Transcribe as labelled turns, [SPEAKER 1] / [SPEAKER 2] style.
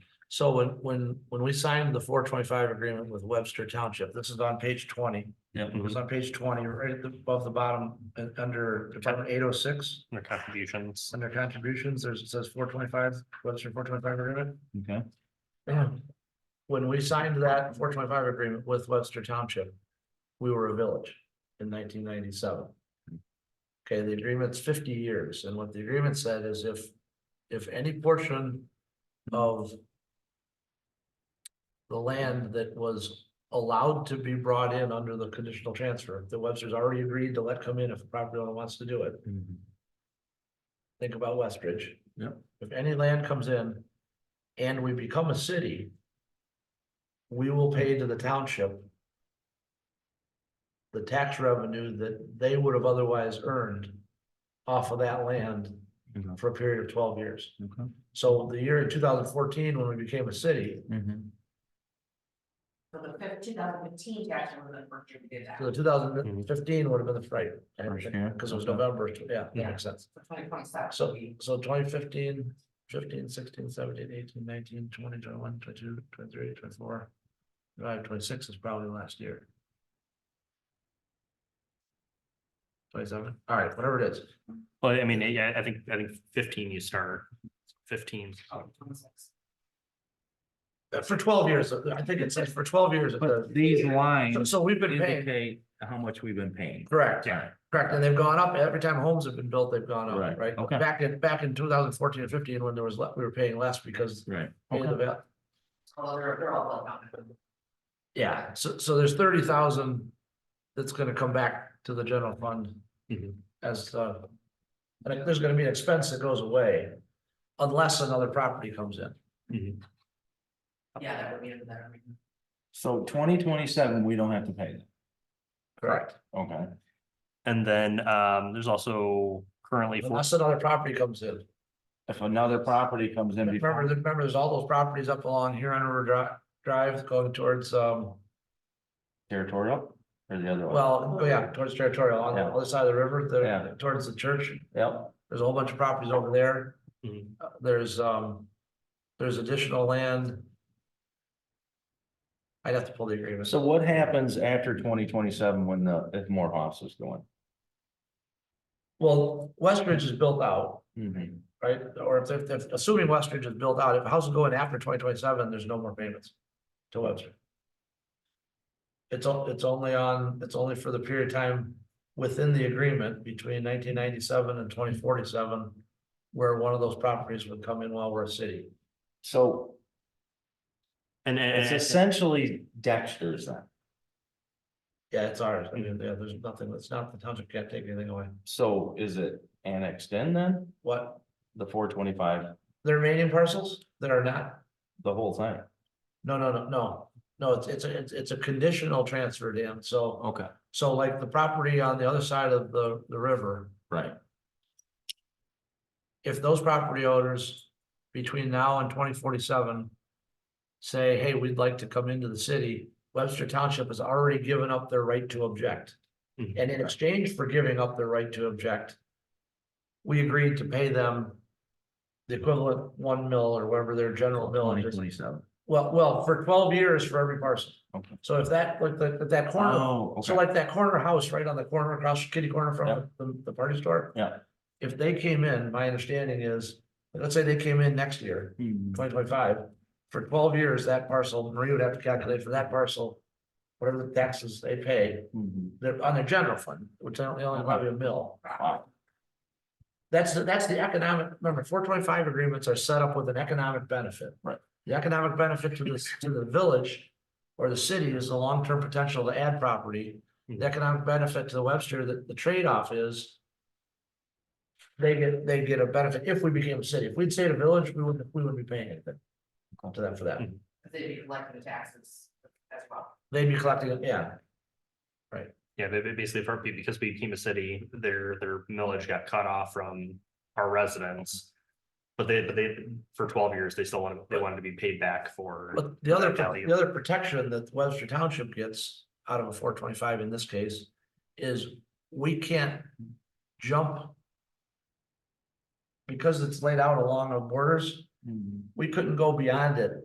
[SPEAKER 1] So when, when, when we signed the four twenty-five agreement with Webster Township, this is on page twenty,
[SPEAKER 2] Yeah,
[SPEAKER 1] it was on page twenty, right at the- above the bottom, uh, under Department eight oh six.
[SPEAKER 3] their contributions.
[SPEAKER 1] Under contributions, there's, it says four twenty-five, Webster four twenty-five agreement.
[SPEAKER 2] okay,
[SPEAKER 1] When we signed that four twenty-five agreement with Webster Township, we were a village in nineteen ninety-seven. Okay, the agreement's fifty years, and what the agreement said is if, if any portion of the land that was allowed to be brought in under the conditional transfer, the Webster's already agreed to let come in if the property owner wants to do it think about Westridge.
[SPEAKER 2] Yep.
[SPEAKER 1] If any land comes in and we become a city, we will pay to the township the tax revenue that they would have otherwise earned off of that land
[SPEAKER 2] Mhm.
[SPEAKER 1] for a period of twelve years.
[SPEAKER 2] okay.
[SPEAKER 1] So the year in two thousand fourteen, when we became a city,
[SPEAKER 2] Mhm.
[SPEAKER 4] So the fif- 2015 tax would have been contributed
[SPEAKER 1] so
[SPEAKER 4] after
[SPEAKER 1] the two thousand fifteen would have been the fright.
[SPEAKER 2] First year,
[SPEAKER 1] Because it was
[SPEAKER 2] okay.
[SPEAKER 1] November, yeah, that
[SPEAKER 4] Yeah.
[SPEAKER 1] makes sense.
[SPEAKER 4] twenty twenty seven.
[SPEAKER 1] So, so 2015, 15, 16, 17, 18, 19, 20, 21, 22, 23, 24, 25, 26 is probably last year. Twenty-seven, all right, whatever it is,
[SPEAKER 3] Well, I mean, yeah, I think, I think fifteen you start, fifteen.
[SPEAKER 1] Uh, for twelve years, uh, I think it says for twelve years. it
[SPEAKER 2] But
[SPEAKER 1] does.
[SPEAKER 2] these
[SPEAKER 1] So-
[SPEAKER 2] lines
[SPEAKER 1] So we've been paying,
[SPEAKER 2] indicate how much we've been paying.
[SPEAKER 1] correct,
[SPEAKER 2] Yeah.
[SPEAKER 1] correct, and they've gone up, every time homes have been built, they've gone up,
[SPEAKER 2] Right,
[SPEAKER 1] right?
[SPEAKER 2] okay.
[SPEAKER 1] Back in, back in two thousand fourteen and fifteen, when there was, le- we were paying less because
[SPEAKER 2] Right,
[SPEAKER 1] of the
[SPEAKER 2] okay,
[SPEAKER 1] val-
[SPEAKER 4] Well, they're, they're all well done.
[SPEAKER 1] Yeah, so, so there's thirty thousand that's gonna come back to the general fund
[SPEAKER 2] Mm-hmm.
[SPEAKER 3] Mhm.
[SPEAKER 1] as, uh. And there's gonna be an expense that goes away unless another property comes in.
[SPEAKER 4] Yeah, that would be a better. reason.
[SPEAKER 2] so twenty twenty-seven, we don't have to pay that,
[SPEAKER 1] Correct.
[SPEAKER 2] okay,
[SPEAKER 3] And then um, there's also currently four,
[SPEAKER 1] Unless another property comes in.
[SPEAKER 2] if another property comes in
[SPEAKER 1] Remember,
[SPEAKER 2] before.
[SPEAKER 1] remember, there's all those properties up along here on River Drive, Drive going towards, um,
[SPEAKER 2] Territorial or the other one?
[SPEAKER 1] well, oh yeah, towards territorial on the
[SPEAKER 2] Yeah.
[SPEAKER 1] other side of the river,
[SPEAKER 2] Yeah.
[SPEAKER 1] there, towards the church.
[SPEAKER 2] Yep,
[SPEAKER 1] There's a whole bunch of properties over there.
[SPEAKER 3] Mhm.
[SPEAKER 1] Uh, There's, um, there's additional land. I'd have to pull the agreement.
[SPEAKER 2] so what happens after twenty twenty-seven when the, if Morehouse is going?
[SPEAKER 1] Well, Westridge is built out,
[SPEAKER 2] Mm-hmm.
[SPEAKER 1] right? Or if, if, if- assuming Westridge is built out, if a house is going after twenty twenty-seven, there's no more payments to Webster. It's, on- it's only on, it's only for the period of time within the agreement between nineteen ninety-seven and twenty forty-seven, where one of those properties would come in while we're a city.
[SPEAKER 2] So
[SPEAKER 3] and, and-
[SPEAKER 2] it's essentially Dexter's then,
[SPEAKER 1] Yeah, it's ours. I mean, yeah, there's nothing, it's not, the township can't take anything away.
[SPEAKER 2] so is it annexed in then,
[SPEAKER 1] What,
[SPEAKER 2] the four twenty-five,
[SPEAKER 1] the remaining parcels that are not?
[SPEAKER 2] the whole thing?
[SPEAKER 1] No, no, no, no. No, it's, it's, a- it's, it's a conditional transfer, Dan. So,
[SPEAKER 2] Okay.
[SPEAKER 1] so like the property on the other side of the, the river,
[SPEAKER 2] Right,
[SPEAKER 1] if those property owners between now and twenty forty-seven say, hey, we'd like to come into the city, Webster Township has already given up their right to object.
[SPEAKER 2] Mm-hmm.
[SPEAKER 3] Mhm.
[SPEAKER 1] And in exchange for giving up their right to object, we agreed to pay them the equivalent one mill or whatever their general mill
[SPEAKER 2] twenty
[SPEAKER 1] is.
[SPEAKER 2] twenty-seven.
[SPEAKER 1] Well, well, for twelve years for every parcel.
[SPEAKER 2] Okay.
[SPEAKER 1] So if that, like, like, that corner,
[SPEAKER 2] Oh,
[SPEAKER 1] so
[SPEAKER 2] okay,
[SPEAKER 1] like that corner house right on the corner across kitty corner from the, the party store.
[SPEAKER 2] Yeah.
[SPEAKER 1] If they came in, my understanding is, let's say they came in next year,
[SPEAKER 2] Hmm,
[SPEAKER 1] twenty twenty-five, for twelve years, that parcel, Marie would have to calculate for that parcel, whatever the taxes they pay,
[SPEAKER 2] hmm,
[SPEAKER 1] they're on their general fund, which they only, only probably a mill.
[SPEAKER 2] wow,
[SPEAKER 1] That's, the that's the economic, remember, four twenty-five agreements are set up with an economic benefit.
[SPEAKER 2] Right.
[SPEAKER 1] The economic benefit to this, to the village or the city is the long-term potential to add property. The economic benefit to Webster, the, the trade-off is they get, they get a benefit if we became a city. If we'd stayed a village, we wouldn't, we wouldn't be paying anything to them for that.
[SPEAKER 4] But They'd be collecting the taxes as well.
[SPEAKER 1] They'd be collecting, it. yeah,
[SPEAKER 3] yeah, ba- ba- basically for, because we became a city, their, their millage got cut off from our residents. But they, but they, for twelve years, they still wanted, they wanted to be paid back for.
[SPEAKER 1] But the other,
[SPEAKER 3] that value.
[SPEAKER 1] the other protection that Webster Township gets out of a four twenty-five in this case is we can't jump. Because it's laid out along the borders,
[SPEAKER 2] hmm.
[SPEAKER 1] we couldn't go beyond it